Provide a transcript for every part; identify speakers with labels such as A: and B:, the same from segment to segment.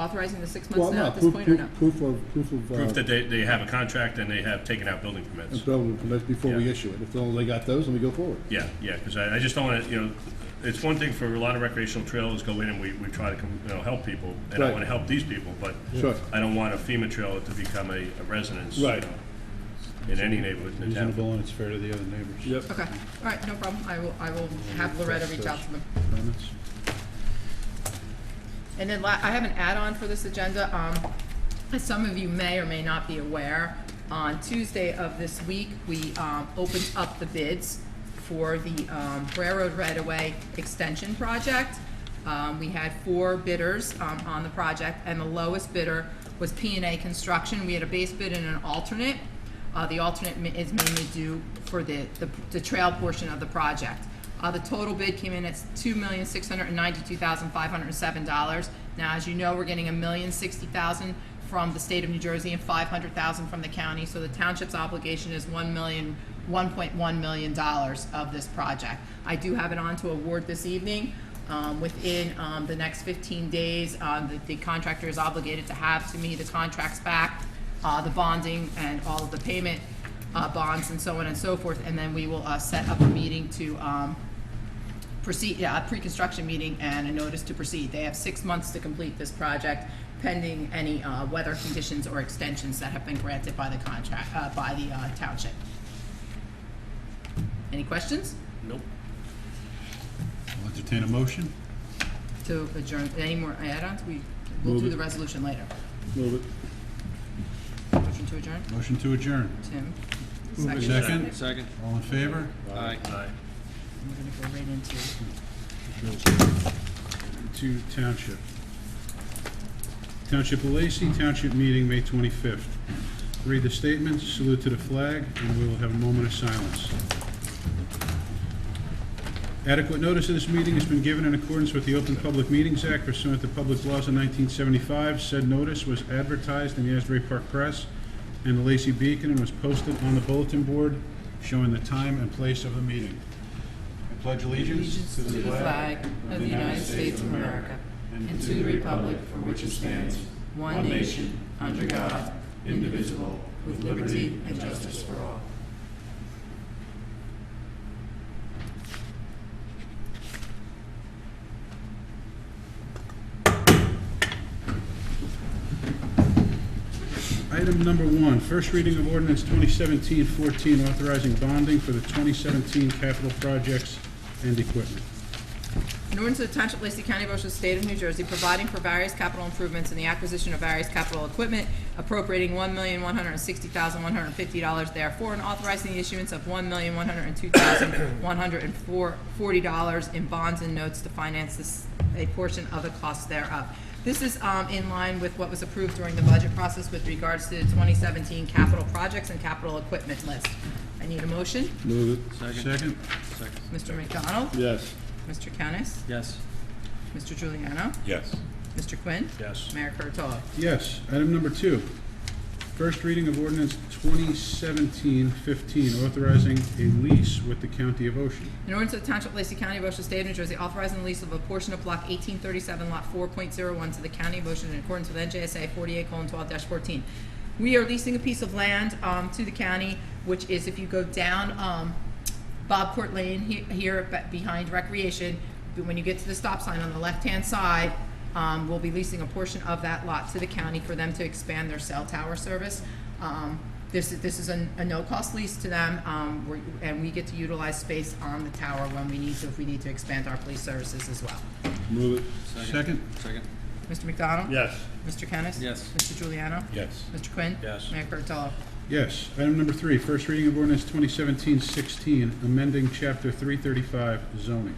A: authorizing the six
B: Well,
A: months now
B: no,
A: uh, at this
B: proof,
A: point, or no?
B: proof, proof of, proof of. uh,
C: Proof that they, they have a contract and they have taken out building permits.
B: of building permits before we
C: Yeah.
B: issue it. If they only got those, then we go forward.
C: Yeah, yeah, because I, I just don't want to, you know, it's one thing for a lot of recreational trailers go in and we, we try to, com- you know, help people, and I
B: Right.
C: want to help these people, but
B: Sure.
C: I don't want a FEMA trailer to become a, a residence, you
B: Right.
C: know, in any neighborhood in the town.
D: Reasonable and it's fair to the other neighbors.
B: Yep.
A: Okay, all right, no problem, I will, I will have Loretta reach out to them.
D: Comments?
A: And then la- I have an add-on for this agenda. Um, As some of you may or may not be aware, on Tuesday of this week, we um, opened up the bids for the um, Railroad Right-of-Way Extension Project. Um, We had four bidders um, on the project, and the lowest bidder was p and A Construction. We had a base bid and an alternate. Uh, The alternate ma- is mainly due for the, the- the trail portion of the project. Uh, the total bid came in at two million, six hundred and ninety-two thousand, five hundred and seven dollars. Now, as you know, we're getting a million, sixty thousand from the state of New Jersey and five hundred thousand from the county, so the township's obligation is one million, one point one million dollars of this project. I do have it on to award this evening. Um, within, um, the next fifteen days, uh, the, the contractor is obligated to have to me the contracts back, uh, the bonding and all of the payment, uh, bonds and so on and so forth, and then we will, uh, set up a meeting to, um, proceed, yeah, a pre-construction meeting and a notice to proceed. They have six months to complete this project pending any, uh, weather conditions or extensions that have been granted by the contract, uh, by the, uh, township. Any questions?
C: Nope.
D: I'll entertain a motion.
A: To adjourn, any more add-ons? We, we'll
B: Move
A: do
B: it.
A: the resolution later.
B: Move it.
A: Motion to adjourn,
D: Motion to adjourn.
A: Tim? Second. We're
D: Second?
E: Second.
D: All in favor?
E: Aye.
C: Aye.
A: gonna go right into.
D: To township. Township of Lacey, township meeting, May 25th. Read the statement, salute to the flag, and we will have a moment of silence. Adequate notice of this meeting has been given in accordance with the Open Public Meetings Act pursuant to public laws of 1975. Said notice was advertised in the Asbury Park Press and the Lacey Beacon and was posted on the bulletin board showing the time and place of the meeting. I pledge
A: allegiance to the flag of the United States of America and to the republic for which it stands, one nation, under God, indivisible, with liberty and justice for all.
D: Item number one, first reading of ordinance 2017-14, authorizing bonding for the 2017 capital projects and equipment.
A: In order to the Township of Lacey County, Ocean State of New Jersey, providing for various capital improvements and the acquisition of various capital equipment, appropriating one million one hundred and sixty thousand one hundred and fifty dollars therefore, and authorizing the issuance of one million one hundred and two thousand one hundred and four, forty dollars in bonds and notes to finance this, a portion of the cost thereof. This is, um, in line with what was approved during the budget process with regards to the twenty seventeen capital projects and capital equipment list. I need a motion.
B: Move it.
D: Second?
E: Second.
A: Mr. McDonald?
B: Yes.
A: Mr. Kennis?
E: Yes.
A: Mr. Giuliano.
C: Yes.
A: Mr. Quinn?
C: Yes.
A: Mayor Kurtolo.
D: Yes. Item number two, first reading of ordinance 2017-15, authorizing a lease with the county of Ocean.
A: In order to the Township of Lacey County, Ocean State of New Jersey, authorizing the lease of a portion of Block 1837, Lot 4.01 to the County of Ocean in accordance with NJSA 48:12-14. We are leasing a piece of land um, to the county, which is, if you go down um, Bob Court Lane he- here be- behind Recreation, when you get to the stop sign on the left-hand side, um, we'll be leasing a portion of that lot to the county for them to expand their cell tower service. Um, This, is- this is a, a no-cost lease to them, um, we're- and we get to utilize space on the tower when we need to, if we need to expand our police services as well.
B: Move it.
D: Second?
E: Second.
A: Mr. McDonald?
C: Yes.
A: Mr. Kennis?
E: Yes.
A: Mr. Giuliano.
C: Yes.
A: Mr. Quinn?
E: Yes.
A: Mayor Kurtolo.
D: Yes. Item number three, first reading of ordinance 2017-16, amending Chapter 335 zoning.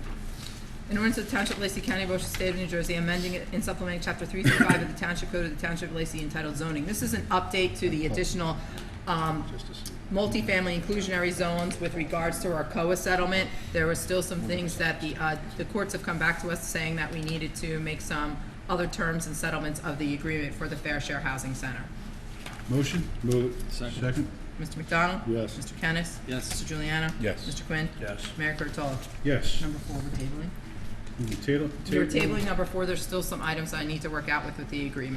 A: In order to the Township of Lacey County, Ocean State of New Jersey, amending and supplementing Chapter 335 of the Township Code of the Township of Lacey entitled zoning. This is an update to the additional um, multifamily inclusionary zones with regards to our COA settlement. There were still some things that the, uh, the courts have come back to us saying that we needed to make some other terms and settlements of the agreement for the Fair Share Housing Center.
D: Motion?
B: Move it.
E: Second.
D: Second?
A: Mr. McDonald?
B: Yes.
A: Mr. Kennis?
E: Yes.
A: Mr. Juliana?
C: Yes.
A: Mr. Quinn?
C: Yes.
A: Mayor Kurtolo.
D: Yes.
A: Number four, we're tabling.
D: Table?
A: We're tabling number four. There's still some items I need to work out with, with the agreement.